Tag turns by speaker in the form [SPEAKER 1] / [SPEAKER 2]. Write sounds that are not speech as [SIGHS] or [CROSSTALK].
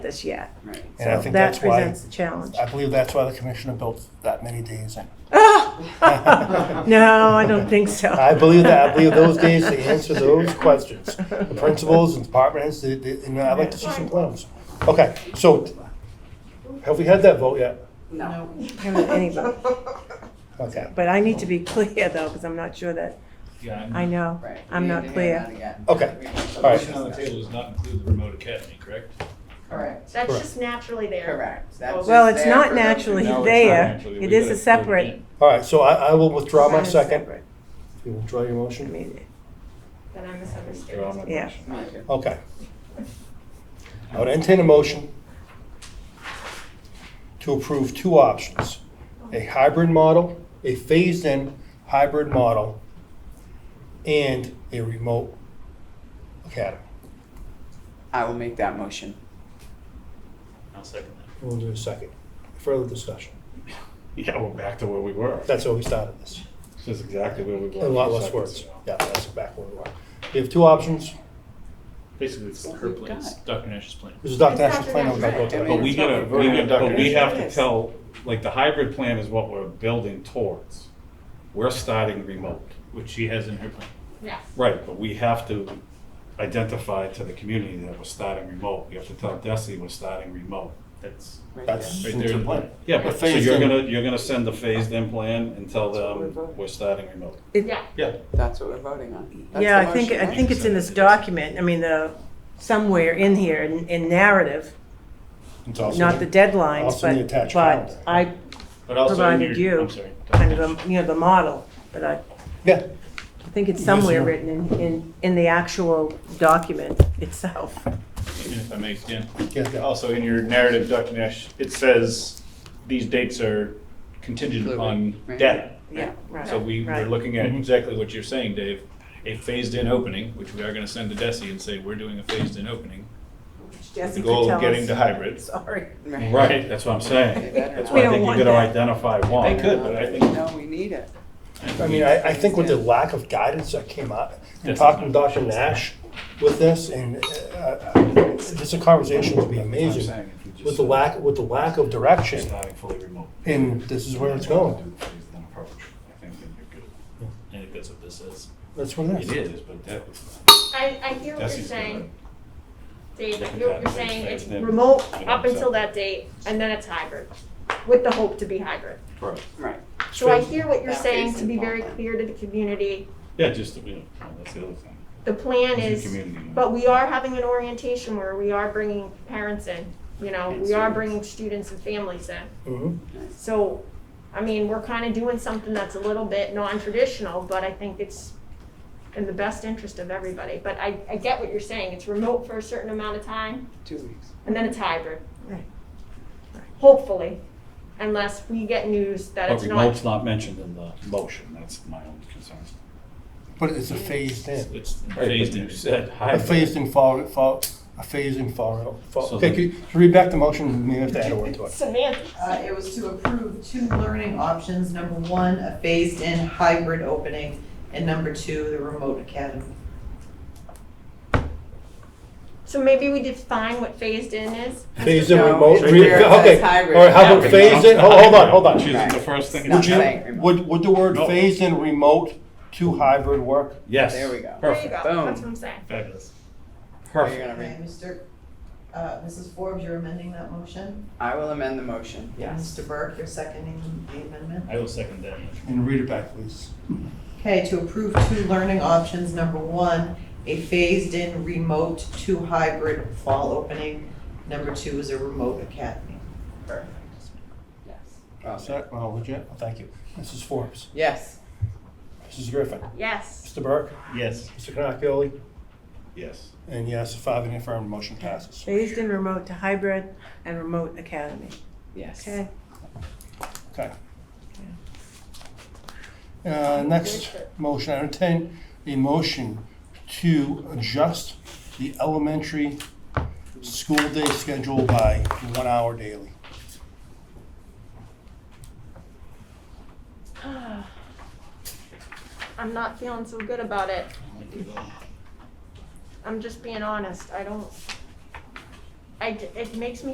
[SPEAKER 1] this yet.
[SPEAKER 2] Right.
[SPEAKER 1] So
[SPEAKER 3] And I think
[SPEAKER 1] that
[SPEAKER 3] that's why-
[SPEAKER 1] presents the challenge.
[SPEAKER 3] I believe that's why the commissioner built that many days in.
[SPEAKER 1] [LAUGHS] Ah! No, I don't think so.
[SPEAKER 3] I believe that, I believe those days to answer those questions. The principals and department heads, they, they, and I'd like to see some plans. Okay, so have we had that vote yet?
[SPEAKER 2] No. [LAUGHS]
[SPEAKER 1] Haven't [LAUGHS] anybody.
[SPEAKER 3] Okay.
[SPEAKER 1] But I need to be clear though, because I'm not sure that,
[SPEAKER 4] Yeah,
[SPEAKER 1] I know,
[SPEAKER 2] Right.
[SPEAKER 1] I'm
[SPEAKER 2] We
[SPEAKER 1] not
[SPEAKER 2] need to
[SPEAKER 1] clear.
[SPEAKER 2] have that again.
[SPEAKER 3] Okay.
[SPEAKER 2] We have
[SPEAKER 3] All right.
[SPEAKER 4] motion on the
[SPEAKER 2] solutions.
[SPEAKER 4] table does not include the remote academy, correct?
[SPEAKER 2] Correct,
[SPEAKER 5] That's
[SPEAKER 3] Correct.
[SPEAKER 5] just naturally there.
[SPEAKER 2] correct. That's just
[SPEAKER 1] Well, it's
[SPEAKER 2] there
[SPEAKER 1] not
[SPEAKER 2] for those who
[SPEAKER 1] naturally
[SPEAKER 2] know.
[SPEAKER 4] No, it's not
[SPEAKER 1] there.
[SPEAKER 4] actually. We
[SPEAKER 1] It is
[SPEAKER 4] gotta
[SPEAKER 1] a separate-
[SPEAKER 4] include
[SPEAKER 3] All right, so I, I will withdraw my
[SPEAKER 1] That is
[SPEAKER 3] second.
[SPEAKER 1] separate.
[SPEAKER 3] You withdraw your
[SPEAKER 1] I
[SPEAKER 3] motion?
[SPEAKER 1] mean,
[SPEAKER 5] Then I
[SPEAKER 4] it. Withdraw my
[SPEAKER 5] misunderstood.
[SPEAKER 1] Yeah.
[SPEAKER 4] motion.
[SPEAKER 2] Me too.
[SPEAKER 3] Okay. I would entertain a motion to approve two options. A hybrid model, a phased-in hybrid model, and a remote academy.
[SPEAKER 2] I will make that motion.
[SPEAKER 4] I'll second
[SPEAKER 3] We'll do a second. Further discussion.
[SPEAKER 4] that. Yeah, we're back to where we were.
[SPEAKER 3] That's how we started this.
[SPEAKER 4] This is exactly where we were.
[SPEAKER 3] A lot less words. Yeah, that's back where we were. We have two options.
[SPEAKER 4] Basically, it's
[SPEAKER 2] What
[SPEAKER 4] her
[SPEAKER 2] we've
[SPEAKER 4] plan, it's
[SPEAKER 2] got.
[SPEAKER 4] Dr. Nash's plan.
[SPEAKER 3] This is Dr.
[SPEAKER 5] It's
[SPEAKER 3] Ash's
[SPEAKER 5] Dr.
[SPEAKER 3] plan. I'm gonna go
[SPEAKER 5] Ash's
[SPEAKER 3] to
[SPEAKER 2] plan.
[SPEAKER 3] that.
[SPEAKER 6] But we gotta, we
[SPEAKER 2] Yeah.
[SPEAKER 6] gotta, but we have to
[SPEAKER 5] Yes.
[SPEAKER 6] tell, like, the hybrid plan is what we're building towards. We're starting remote.
[SPEAKER 4] Which she has in her plan.
[SPEAKER 5] Yes.
[SPEAKER 6] Right, but we have to identify to the community that we're starting remote. We have to tell Desi we're starting remote.
[SPEAKER 4] That's
[SPEAKER 2] Right
[SPEAKER 3] That's
[SPEAKER 4] right there
[SPEAKER 3] the
[SPEAKER 4] in the
[SPEAKER 3] plan.
[SPEAKER 4] plan.
[SPEAKER 6] Yeah,
[SPEAKER 3] A
[SPEAKER 6] but so
[SPEAKER 3] phased
[SPEAKER 6] you're
[SPEAKER 3] in.
[SPEAKER 6] gonna, you're gonna send the phased in plan and tell
[SPEAKER 2] That's what we're
[SPEAKER 6] them
[SPEAKER 2] voting.
[SPEAKER 6] we're starting remote.
[SPEAKER 1] it-
[SPEAKER 5] Yeah.
[SPEAKER 4] Yeah.
[SPEAKER 2] That's what we're voting on. That's
[SPEAKER 1] Yeah,
[SPEAKER 2] the
[SPEAKER 1] I think,
[SPEAKER 2] motion,
[SPEAKER 1] I
[SPEAKER 2] right?
[SPEAKER 1] think it's in this document, I mean, the, somewhere in here, in, in narrative,
[SPEAKER 3] It's also-
[SPEAKER 1] not the deadlines,
[SPEAKER 3] also in the
[SPEAKER 1] but,
[SPEAKER 3] attached
[SPEAKER 1] but
[SPEAKER 3] calendar.
[SPEAKER 1] I
[SPEAKER 4] But also in
[SPEAKER 1] provided
[SPEAKER 4] your,
[SPEAKER 1] you
[SPEAKER 4] I'm sorry. Dr.
[SPEAKER 1] kind
[SPEAKER 4] Nash.
[SPEAKER 1] of, a- you know, the model, but I,
[SPEAKER 3] Yeah,
[SPEAKER 1] I think it's
[SPEAKER 3] Yes, ma'am.
[SPEAKER 1] somewhere written in, in, in the actual document itself.
[SPEAKER 4] Even if I may, Dan.
[SPEAKER 3] Yeah, yeah.
[SPEAKER 4] Also, in your narrative, Dr. Nash, it says these dates are contingent
[SPEAKER 2] Fluid,
[SPEAKER 4] upon
[SPEAKER 2] right.
[SPEAKER 4] data.
[SPEAKER 1] [LAUGHS] Yeah, right.
[SPEAKER 4] So we
[SPEAKER 1] right.
[SPEAKER 4] were looking at
[SPEAKER 3] Mhm.
[SPEAKER 4] exactly what you're saying, Dave, a phased-in opening, which we are gonna send to Desi and say, we're doing a phased-in opening.
[SPEAKER 1] Jesse
[SPEAKER 4] The
[SPEAKER 1] could
[SPEAKER 4] goal
[SPEAKER 1] tell
[SPEAKER 4] of getting
[SPEAKER 1] us.
[SPEAKER 4] to
[SPEAKER 1] [LAUGHS]
[SPEAKER 4] hybrid.
[SPEAKER 1] Sorry.
[SPEAKER 2] Right.
[SPEAKER 6] Right, that's what I'm
[SPEAKER 2] They
[SPEAKER 6] saying.
[SPEAKER 2] better
[SPEAKER 6] That's
[SPEAKER 2] not.
[SPEAKER 6] why I
[SPEAKER 1] don't
[SPEAKER 6] think
[SPEAKER 1] want
[SPEAKER 6] you gotta
[SPEAKER 1] that.
[SPEAKER 6] identify
[SPEAKER 4] I
[SPEAKER 6] one.
[SPEAKER 4] could, but I think-
[SPEAKER 2] No, we need it.
[SPEAKER 3] I mean, I, I think with the lack of guidance that came out, and talking to Dr. Nash with this, and uh, uh, this conversation would be
[SPEAKER 6] That's what I'm
[SPEAKER 3] amazing.
[SPEAKER 6] saying, if you just
[SPEAKER 3] With the lack, with the lack of
[SPEAKER 6] say
[SPEAKER 3] direction,
[SPEAKER 6] Starting fully remote.
[SPEAKER 3] and this is where it's going.
[SPEAKER 6] Do the phased-in approach. I think then you're good.
[SPEAKER 4] I think that's what this is.
[SPEAKER 3] That's what it
[SPEAKER 6] It
[SPEAKER 3] is.
[SPEAKER 6] is, but that was.
[SPEAKER 5] I, I hear what you're
[SPEAKER 6] Desi's gonna-
[SPEAKER 5] saying, Dave. I
[SPEAKER 6] Different
[SPEAKER 5] hear what you're
[SPEAKER 6] categories,
[SPEAKER 5] saying.
[SPEAKER 6] right?
[SPEAKER 5] It's
[SPEAKER 6] Then-
[SPEAKER 5] remote
[SPEAKER 6] you know,
[SPEAKER 5] up
[SPEAKER 6] so-
[SPEAKER 5] until that date and then it's hybrid with the hope to be hybrid.
[SPEAKER 6] Right.
[SPEAKER 2] Right.
[SPEAKER 5] So I hear what you're
[SPEAKER 2] That
[SPEAKER 5] saying
[SPEAKER 2] is
[SPEAKER 5] to be very
[SPEAKER 2] involved.
[SPEAKER 5] clear to the community.
[SPEAKER 6] Yeah, just, you know, that's the other thing.
[SPEAKER 5] The plan
[SPEAKER 6] It's a
[SPEAKER 5] is,
[SPEAKER 6] community, man.
[SPEAKER 5] but we are having an orientation where we are bringing parents in, you know,
[SPEAKER 2] And
[SPEAKER 5] we are
[SPEAKER 2] students.
[SPEAKER 5] bringing students and families in.
[SPEAKER 3] Mhm.
[SPEAKER 5] So, I mean, we're kind of doing something that's a little bit non-traditional, but I think it's in the best interest of everybody. But I, I get what you're saying. It's remote for a certain amount of time
[SPEAKER 2] Two weeks.
[SPEAKER 5] and then it's hybrid.
[SPEAKER 1] Right.
[SPEAKER 5] Hopefully, unless we get news that
[SPEAKER 6] But
[SPEAKER 5] it's not.
[SPEAKER 6] remote's not mentioned in the motion, that's my own concern.
[SPEAKER 3] But it's a phased in.
[SPEAKER 4] It's
[SPEAKER 6] Right,
[SPEAKER 4] phased
[SPEAKER 6] but
[SPEAKER 4] in.
[SPEAKER 6] You said
[SPEAKER 3] A
[SPEAKER 6] hybrid.
[SPEAKER 3] phased in follow, follow, a phased in follow. follow-
[SPEAKER 6] So
[SPEAKER 3] Okay,
[SPEAKER 6] the-
[SPEAKER 3] can you can you read back the motion, maybe I have to add a word to it.
[SPEAKER 5] Semantics.
[SPEAKER 7] Uh, It was to approve two learning options. Number one, a phased-in hybrid opening, and number two, the remote academy.
[SPEAKER 5] So maybe we define what phased in is.
[SPEAKER 3] Phased in
[SPEAKER 2] No,
[SPEAKER 3] remote,
[SPEAKER 2] it's
[SPEAKER 3] re-
[SPEAKER 2] where it says
[SPEAKER 3] okay,
[SPEAKER 2] hybrid.
[SPEAKER 3] or how about
[SPEAKER 2] Yeah.
[SPEAKER 3] phased in, hold hold on, hold on.
[SPEAKER 6] Choosing the first thing.
[SPEAKER 2] Not
[SPEAKER 3] Would
[SPEAKER 6] to-
[SPEAKER 2] saying
[SPEAKER 3] you,
[SPEAKER 2] remote.
[SPEAKER 3] would, would the word
[SPEAKER 6] No.
[SPEAKER 3] phased in remote to hybrid work?
[SPEAKER 6] Yes.
[SPEAKER 2] There we go.
[SPEAKER 5] There you go.
[SPEAKER 6] Perfect,
[SPEAKER 2] Boom.
[SPEAKER 5] That's what I'm saying.
[SPEAKER 4] Fabulous.
[SPEAKER 2] Are you
[SPEAKER 6] perfect.
[SPEAKER 2] gonna
[SPEAKER 7] Okay,
[SPEAKER 2] read?
[SPEAKER 7] Mr., uh, Mrs. Forbes, you're amending that motion?
[SPEAKER 2] I will amend the motion. Yes.
[SPEAKER 7] Mr. Burke, you're seconding the amendment?
[SPEAKER 4] I will second that.
[SPEAKER 3] And read it back, please.
[SPEAKER 7] Okay, to approve two learning options. Number one, a phased-in remote to hybrid fall opening. Number two is a remote academy.
[SPEAKER 2] Perfect. Yes. Well
[SPEAKER 3] Is
[SPEAKER 2] done.
[SPEAKER 3] that, oh, legit? Well, thank you. Mrs. Forbes,
[SPEAKER 2] Yes.
[SPEAKER 3] Mrs. Griffin,
[SPEAKER 5] Yes.
[SPEAKER 3] Mr. Burke,
[SPEAKER 4] Yes.
[SPEAKER 3] Mr. Cannapoli,
[SPEAKER 6] Yes.
[SPEAKER 3] and yes, five in the affirmative, motion passes.
[SPEAKER 1] Phased in remote to hybrid and remote academy.
[SPEAKER 2] Yes.
[SPEAKER 1] Okay.
[SPEAKER 3] Okay. Uh, next motion, I entertain a motion to adjust the elementary school day schedule by one hour daily.
[SPEAKER 5] [SIGHS] I'm not feeling so good about it. I'm just being honest. I don't. I, it makes me